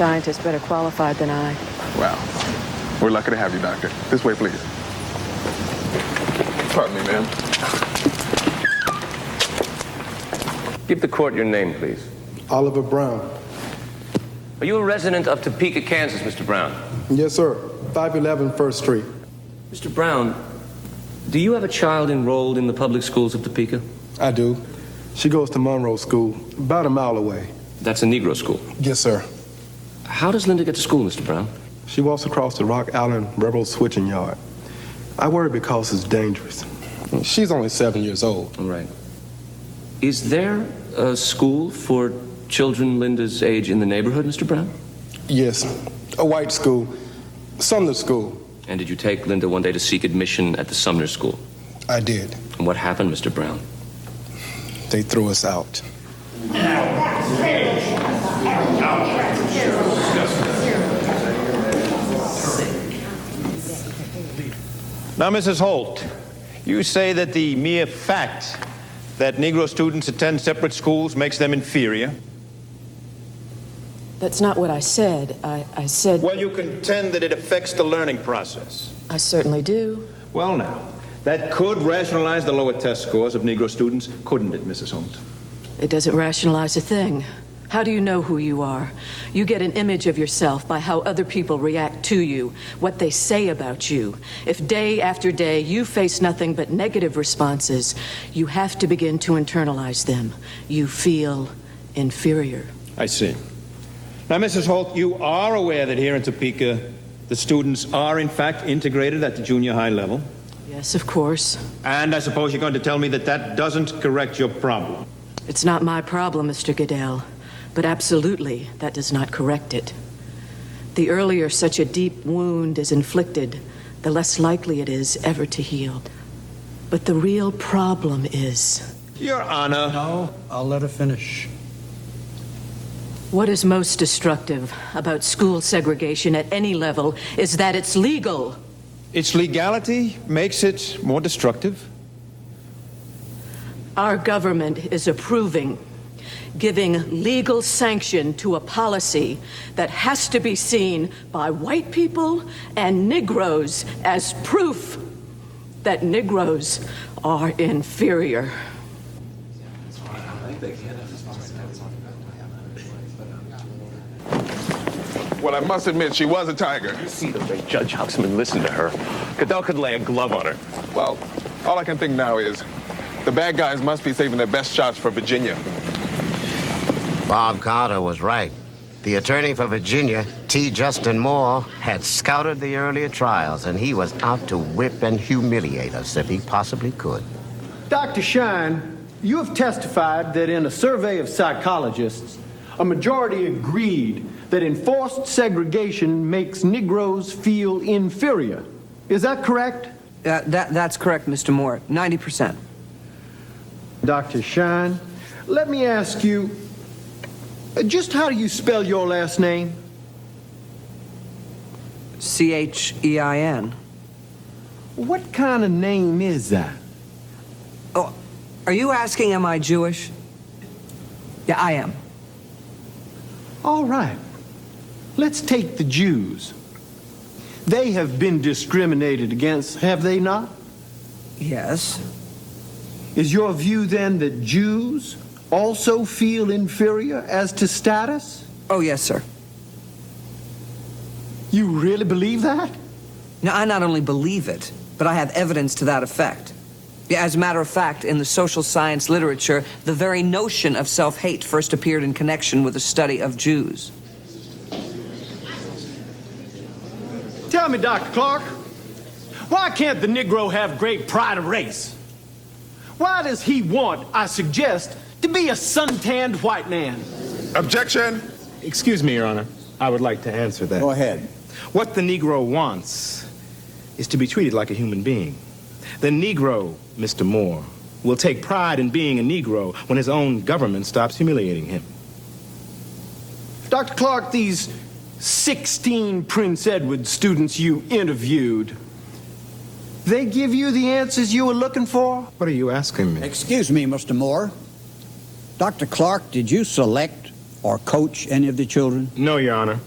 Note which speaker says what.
Speaker 1: Scientist better qualified than I.
Speaker 2: Wow. We're lucky to have you, Doctor. This way, please. Pardon me, ma'am.
Speaker 3: Give the court your name, please.
Speaker 4: Oliver Brown.
Speaker 3: Are you a resident of Topeka, Kansas, Mr. Brown?
Speaker 4: Yes, sir. 511 First Street.
Speaker 3: Mr. Brown, do you have a child enrolled in the public schools of Topeka?
Speaker 4: I do. She goes to Monroe School, about a mile away.
Speaker 3: That's a Negro school.
Speaker 4: Yes, sir.
Speaker 3: How does Linda get to school, Mr. Brown?
Speaker 4: She walks across the Rock Island Railroad switching yard. I worry because it's dangerous. She's only seven years old.
Speaker 3: All right. Is there a school for children Linda's age in the neighborhood, Mr. Brown?
Speaker 4: Yes, a white school, Sumner School.
Speaker 3: And did you take Linda one day to seek admission at the Sumner School?
Speaker 4: I did.
Speaker 3: And what happened, Mr. Brown?
Speaker 4: They threw us out.
Speaker 5: Now, Mrs. Holt, you say that the mere fact that Negro students attend separate schools makes them inferior.
Speaker 1: That's not what I said. I, I said
Speaker 5: Well, you contend that it affects the learning process.
Speaker 1: I certainly do.
Speaker 5: Well, now, that could rationalize the lower test scores of Negro students, couldn't it, Mrs. Holt?
Speaker 1: It doesn't rationalize a thing. How do you know who you are? You get an image of yourself by how other people react to you, what they say about you. If day after day you face nothing but negative responses, you have to begin to internalize them. You feel inferior.
Speaker 5: I see. Now, Mrs. Holt, you are aware that here in Topeka, the students are in fact integrated at the junior high level.
Speaker 1: Yes, of course.
Speaker 5: And I suppose you're going to tell me that that doesn't correct your problem.
Speaker 1: It's not my problem, Mr. Goodell, but absolutely that does not correct it. The earlier such a deep wound is inflicted, the less likely it is ever to heal. But the real problem is
Speaker 5: Your Honor.
Speaker 6: No, I'll let her finish.
Speaker 1: what is most destructive about school segregation at any level is that it's legal.
Speaker 5: Its legality makes it more destructive.
Speaker 1: Our government is approving, giving legal sanction to a policy that has to be seen by white people and Negroes as proof that Negroes are inferior.
Speaker 2: Well, I must admit, she was a tiger.
Speaker 3: See the way Judge Hobsman listened to her. Goodell could lay a glove on her.
Speaker 2: Well, all I can think now is the bad guys must be saving their best shots for Virginia.
Speaker 7: Bob Carter was right. The attorney for Virginia, T. Justin Moore, had scouted the earlier trials, and he was out to whip and humiliate us if he possibly could.
Speaker 8: Dr. Shine, you have testified that in a survey of psychologists, a majority agreed that enforced segregation makes Negroes feel inferior. Is that correct?
Speaker 9: Uh, that, that's correct, Mr. Moore. 90%.
Speaker 8: Dr. Shine, let me ask you uh, just how do you spell your last name?
Speaker 9: C H E I N.
Speaker 8: What kind of name is that?
Speaker 9: Oh, are you asking, am I Jewish? Yeah, I am.
Speaker 8: All right. Let's take the Jews. They have been discriminated against, have they not?
Speaker 9: Yes.
Speaker 8: Is your view then that Jews also feel inferior as to status?
Speaker 9: Oh, yes, sir.
Speaker 8: You really believe that?
Speaker 9: Now, I not only believe it, but I have evidence to that effect. Yeah, as a matter of fact, in the social science literature, the very notion of self hate first appeared in connection with the study of Jews.
Speaker 8: Tell me, Dr. Clark, why can't the Negro have great pride of race? Why does he want, I suggest, to be a suntanned white man?
Speaker 2: Objection!
Speaker 10: Excuse me, Your Honor. I would like to answer that.
Speaker 6: Go ahead.
Speaker 10: What the Negro wants is to be treated like a human being. The Negro, Mr. Moore, will take pride in being a Negro when his own government stops humiliating him.
Speaker 8: Dr. Clark, these 16 Prince Edward students you interviewed, they give you the answers you were looking for?
Speaker 10: What are you asking me?
Speaker 6: Excuse me, Mr. Moore. Dr. Clark, did you select
Speaker 11: or coach any of the children?
Speaker 5: No, Your Honor.